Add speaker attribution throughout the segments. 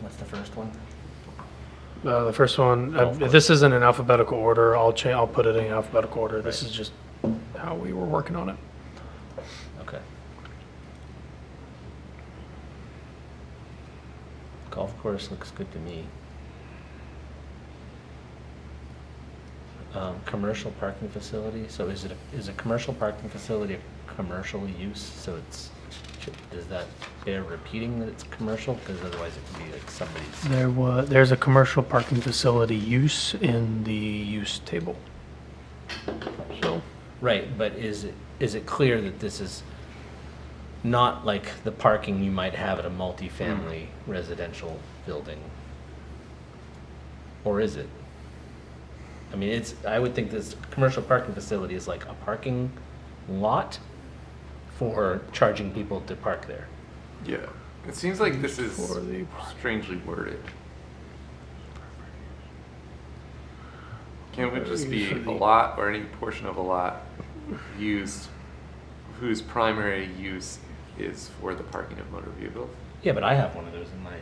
Speaker 1: What's the first one?
Speaker 2: Uh, the first one, uh,
Speaker 1: Oh, of course.
Speaker 2: this isn't in alphabetical order. I'll cha- I'll put it in alphabetical order. This is just how we were working on it.
Speaker 1: Okay. Golf course looks good to me. Um, commercial parking facility, so is it, a- is a commercial parking facility a commercial use? So it's, does that bear repeating that it's commercial? Because otherwise it could be like somebody's,
Speaker 2: There was there's a commercial parking facility use in the use table. So
Speaker 1: right, but is it, is it clear that this is not like the parking you might have at a multifamily residential building? Or is it? I mean, it's, I would think this commercial parking facility is like a parking lot for charging people to park there.
Speaker 3: Yeah. It seems like this is
Speaker 2: for the
Speaker 3: strangely worded. Can't it just be a lot or any portion of a lot used whose primary use is for the parking of motor vehicles?
Speaker 1: Yeah, but I have one of those in my,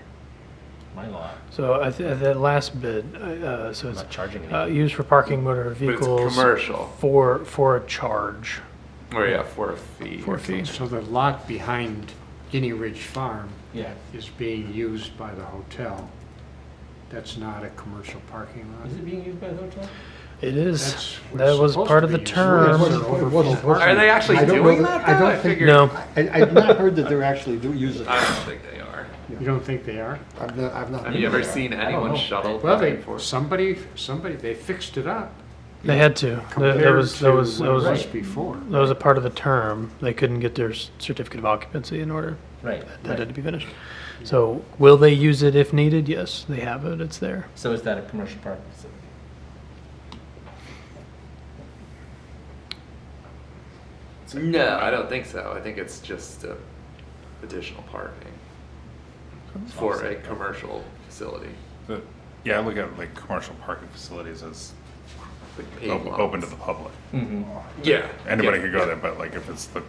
Speaker 1: my lot.
Speaker 2: so I th- that last bit. Uh, uh, so
Speaker 1: I'm
Speaker 2: it's
Speaker 1: not charging
Speaker 2: uh,
Speaker 1: anyone.
Speaker 2: used for parking motor
Speaker 3: But it's
Speaker 2: vehicles
Speaker 3: commercial.
Speaker 2: for for a charge.
Speaker 3: Or yeah, for a fee.
Speaker 2: For a fee.
Speaker 4: So the lot behind Guinea Ridge Farm
Speaker 1: Yeah.
Speaker 4: is being used by the hotel. That's not a commercial parking lot.
Speaker 1: Is it being used by the hotel?
Speaker 2: It is.
Speaker 4: That's what
Speaker 2: That
Speaker 4: it's
Speaker 2: was
Speaker 4: supposed
Speaker 2: part
Speaker 4: to
Speaker 2: of the
Speaker 4: be used for.
Speaker 2: term.
Speaker 4: It wasn't- it wasn't-
Speaker 3: Are they actually
Speaker 5: I don't
Speaker 3: doing
Speaker 5: know
Speaker 3: that?
Speaker 5: that- I
Speaker 3: though?
Speaker 5: don't think-
Speaker 3: figured-
Speaker 2: No,
Speaker 5: I, I've not heard that they're actually do- using
Speaker 3: I
Speaker 5: it.
Speaker 3: don't think they are.
Speaker 4: You don't think they are?
Speaker 5: I've not, I've not.
Speaker 3: Have
Speaker 5: heard
Speaker 3: you
Speaker 5: that.
Speaker 3: ever seen
Speaker 1: I don't
Speaker 3: anyone
Speaker 1: know.
Speaker 3: shuttle
Speaker 4: Well,
Speaker 3: back
Speaker 4: they,
Speaker 3: and forth?
Speaker 4: somebody, somebody, they fixed it up
Speaker 2: they had to. That, that
Speaker 4: compared
Speaker 2: was
Speaker 4: to
Speaker 2: that
Speaker 4: what
Speaker 2: was that
Speaker 4: it
Speaker 2: was
Speaker 4: was before.
Speaker 2: that was a part of the term. They couldn't get their s- certificate of occupancy in order.
Speaker 1: Right.
Speaker 2: That had to be finished. So will they use it if needed? Yes, they have it. It's there.
Speaker 1: So is that a commercial parking facility?
Speaker 3: No, I don't think so. I think it's just uh, additional parking for a commercial facility,
Speaker 6: The- Yeah, I look at like commercial parking facilities as
Speaker 3: like paid
Speaker 6: op-
Speaker 3: lots.
Speaker 6: open to the public.
Speaker 3: Yeah.
Speaker 6: Anybody
Speaker 3: yeah,
Speaker 6: could go
Speaker 3: yeah.
Speaker 6: there, but like if it's the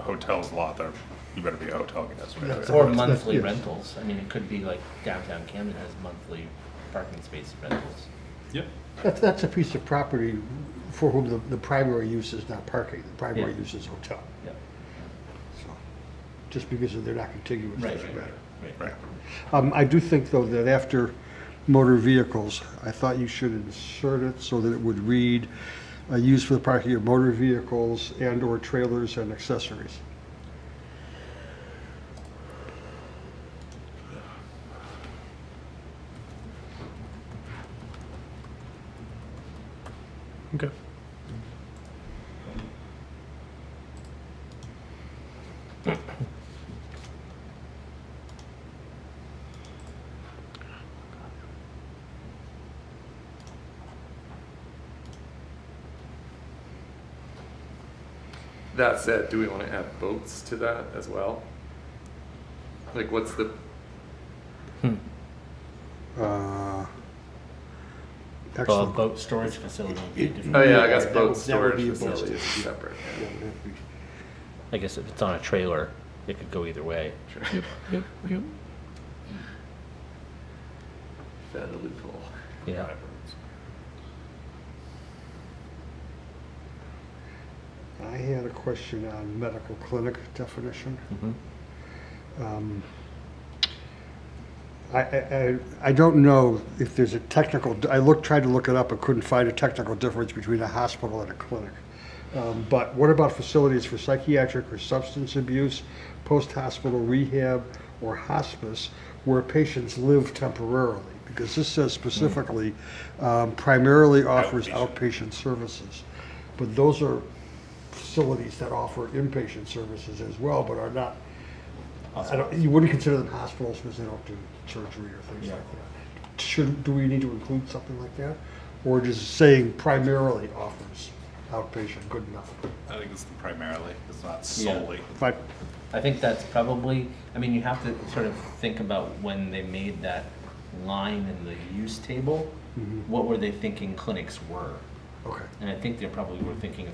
Speaker 6: hotel's lot, there, you better be a hotel guest. right?
Speaker 5: That's-
Speaker 1: Or
Speaker 5: that's-
Speaker 1: monthly
Speaker 5: yes.
Speaker 1: rentals. I mean, it could be like downtown Camden has monthly parking space rentals.
Speaker 6: Yep.
Speaker 5: That's, that's a piece of property for whom the, the primary use is not parking, the primary
Speaker 1: Yeah.
Speaker 5: use is hotel.
Speaker 1: Yep.
Speaker 5: So, Just because they're not contiguous
Speaker 1: Right,
Speaker 5: doesn't
Speaker 1: right,
Speaker 5: matter.
Speaker 1: right, right.
Speaker 6: Right.
Speaker 5: Um, I do think though that after motor vehicles, I thought you should insert it so that it would read, uh, used for the parking of motor vehicles and or trailers and accessories.
Speaker 2: Okay.
Speaker 3: That said, do we want to add boats to that as well? Like, what's the?
Speaker 5: Uh,
Speaker 1: Well, a
Speaker 5: Excellent.
Speaker 1: boat storage facility would be a different.
Speaker 3: Oh yeah, I guess
Speaker 5: that
Speaker 3: boat
Speaker 5: would- that would
Speaker 3: storage
Speaker 5: be a boat
Speaker 3: facility is
Speaker 5: storage.
Speaker 3: separate.
Speaker 5: Yeah, that'd be-
Speaker 1: I guess if it's on a trailer, it could go either way.
Speaker 2: Yep. Yep. Yep.
Speaker 3: Found a loophole.
Speaker 1: Yeah.
Speaker 5: I had a question on medical clinic definition.
Speaker 1: Mhm.
Speaker 5: Um, I, I, I- I don't know if there's a technical, I looked, tried to look it up, and couldn't find a technical difference between a hospital and a clinic. Um, But what about facilities for psychiatric or substance abuse, post-hospital rehab, or hospice, where patients live temporarily? Because this says specifically, um, primarily offers outpatient services. But those are facilities that offer inpatient services as well, but are not I don't, you wouldn't consider them hospitals because they don't do surgery or things like that. Should, do we need to include something like that? Or just saying primarily offers outpatient, good enough?
Speaker 6: I think it's the primarily, it's not solely.
Speaker 5: If I,
Speaker 1: I think that's probably, I mean, you have to sort of think about when they made that line in the Mm-hmm. use table, what were they thinking clinics were?
Speaker 5: okay.
Speaker 1: And I think they probably were thinking